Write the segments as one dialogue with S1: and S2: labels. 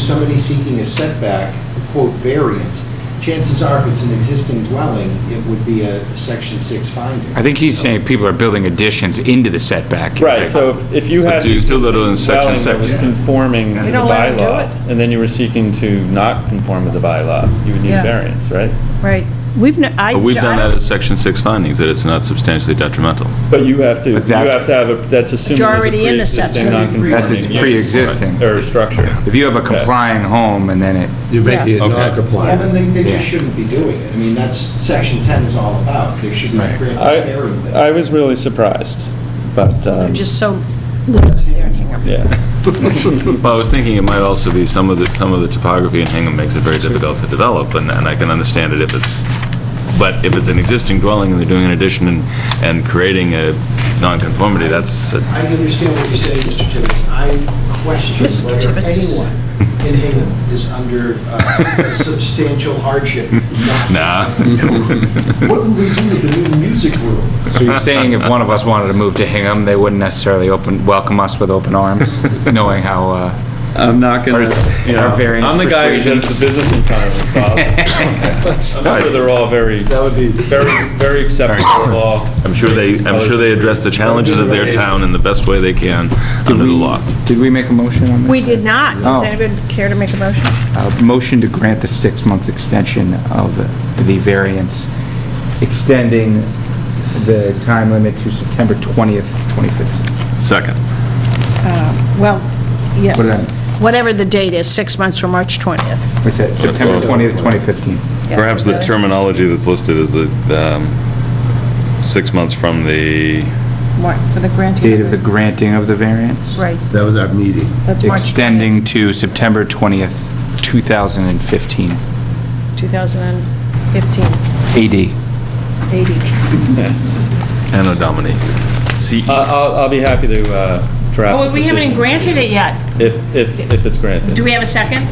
S1: somebody seeking a setback, quote, variance, chances are, if it's an existing dwelling, it would be a section six finding.
S2: I think he's saying people are building additions into the setback.
S3: Right, so if- if you had
S4: So you still go to
S3: existing
S4: section
S3: dwelling that was
S4: six.
S3: conforming to
S5: We
S3: the
S5: don't let 'em do
S3: bylaw, and then you were seeking to not conform with the bylaw, you would need a
S5: Yeah.
S3: variance, right?
S5: Right. We've, no- I.
S4: But we've done
S5: I don't-
S4: that as section six findings, that it's not substantially detrimental.
S3: But you have to, you
S2: But that's-
S3: have to have, a that's assuming
S5: You're
S3: there's a
S5: already in the
S3: pre-existing
S5: setback.
S3: non-conforming
S2: That's its
S3: use
S2: pre-existing.
S3: Or structure.
S2: If you have a complying home and then it,
S6: You're
S5: making
S6: making it
S4: Yeah. Okay.
S1: Well,
S6: non-compliant.
S1: then they, they
S2: Yeah.
S1: just shouldn't be doing it. I mean, that's, section ten is all about, they should be granted sparingly.
S3: I, I was really surprised, but,
S5: They're
S3: um,
S5: just so, loose there in Hingham.
S3: yeah.
S4: Well, I was thinking it might also be some of the, some of the topography in Hingham makes it very difficult to develop, and, and I can understand it if it's, but if it's an existing dwelling and they're doing an addition and, and creating a nonconformity, that's, a-
S1: I understand what you're saying, Mr. Tibbetts. I question
S5: Mr.
S1: whether
S5: Tibbetts.
S1: anyone in Hingham is under uh, substantial hardship. not-
S4: Nah.
S1: What would we do with the new music room?
S2: so you're saying if one of us wanted to move to Hingham, they wouldn't necessarily open, welcome us with open arms, knowing how, uh,
S3: I'm not
S2: gonna- Our- you know, our variance
S3: I'm the guy who does
S2: persuasion.
S3: the business environment, so I'll just- I'm sure they're all very,
S6: That would be,
S3: very, very acceptable law.
S4: I'm sure they, I'm sure they address the challenges of their town in the best way they can under the law.
S2: did we make a motion on this?
S5: We did not.
S2: Oh.
S5: Does anybody care to make a motion?
S2: A motion to grant the six-month extension of the- the variance, extending the time limit to September 20th, 2015.
S4: Second.
S5: Well, yes.
S2: What then?
S5: Whatever the date is, six months from March 20th.
S2: What's that, September 20th, 2015?
S5: Yeah.
S4: Perhaps the terminology that's listed is the, um, six months from the,
S5: Mark, for the granting.
S2: Date of the granting of the variance?
S5: Right,
S6: that was our meeting.
S5: that's March 20th,
S2: Extending to September 20th, 2015,
S5: 2015,
S2: AD.
S5: 80.
S4: Uh, Anno Domini. C E
S3: I- Uh, I'll, I'll be happy to uh, draft
S5: Oh,
S3: a
S5: we haven't even
S3: decision
S5: granted it yet.
S3: If, if, if it's granted.
S5: Do we have a second?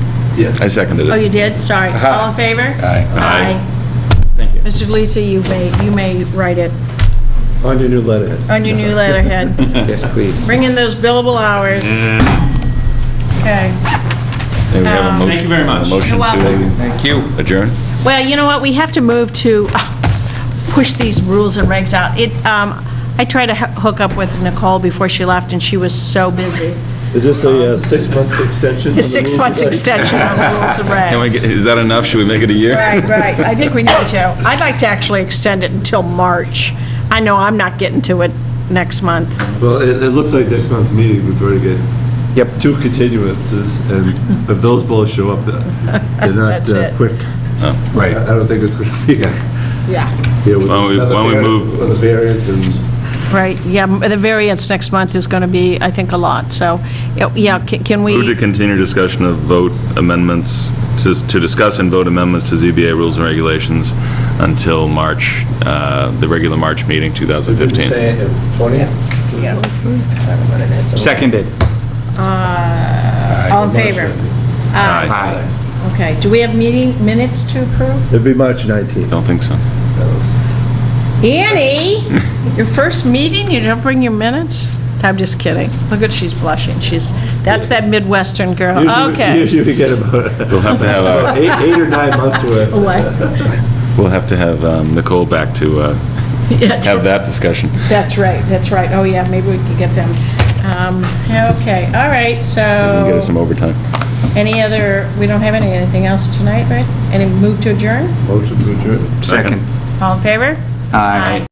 S4: I seconded
S5: Oh,
S4: it.
S5: you did? Sorry. All in favor?
S4: Uh, uh-huh. Aye.
S3: Thank you.
S5: Mr. Delisi, you may, you may write it
S6: On your new letterhead.
S5: on your new letterhead.
S2: Yes, please.
S5: Bring in those billable hours. Okay.
S4: Maybe we have a motion-
S3: Thank you very much.
S4: a Motion
S5: Um, You're welcome.
S4: to
S2: Thank you.
S4: adjourn?
S5: Well, you know what, we have to move to uh, push these rules and regs out. It, um, I tried to ho- hook up with Nicole before she left, and she was so busy.
S6: Is this a uh, six-month extension? on the
S5: The six
S6: rules
S5: months
S6: of-
S5: extension on the rules and regs.
S4: Can we, get- is that enough? Should we make it a year?
S5: Right, right, I think we need to. I'd like to actually extend it until March. I know I'm not getting to it next month.
S6: Well, it, it looks like next month's meeting, we've already got
S2: Yep.
S6: two continuances, and if those both show up, they're they're not
S5: That's
S6: uh,
S5: it.
S6: quick.
S1: Right.
S6: I I don't think it's going to be.
S5: Yeah.
S6: Why
S4: Why don't we- why don't we move-
S6: On the variance and
S5: Right, yeah, m- the variance next month is going to be, I think, a lot, so, yeah, yeah, ca- can
S4: Move to
S5: we,
S4: continue discussion of vote amendments, to to discuss and vote amendments to ZBA rules and regulations until March, uh, the regular March meeting, 2015.
S6: say 20?
S2: Seconded.
S5: all in favor?
S4: Aye.
S2: Aye.
S5: Okay, do we have meeting minutes to approve?
S6: It'd be March 19th.
S4: Don't think so.
S5: Annie, your first meeting, you don't bring your minutes? I'm just kidding. Look at, she's blushing. She's, that's that Midwestern girl.
S6: Usually-
S5: Okay.
S6: Usually we get about
S4: We'll have to have,
S6: about
S4: uh,
S6: eight, eight or nine months worth.
S5: Oh, What?
S4: we'll have to have um, Nicole back to uh, have
S5: Yeah,
S4: that discussion.
S5: That's right, that's right. Oh, yeah, maybe we could get them. Um, Okay, all right,
S4: Get us some
S5: so,
S4: overtime.
S5: any other, we don't have any, anything else tonight, right? Any move to adjourn?
S6: Motion to adjourn.
S2: Second.
S5: All in favor?
S2: Aye.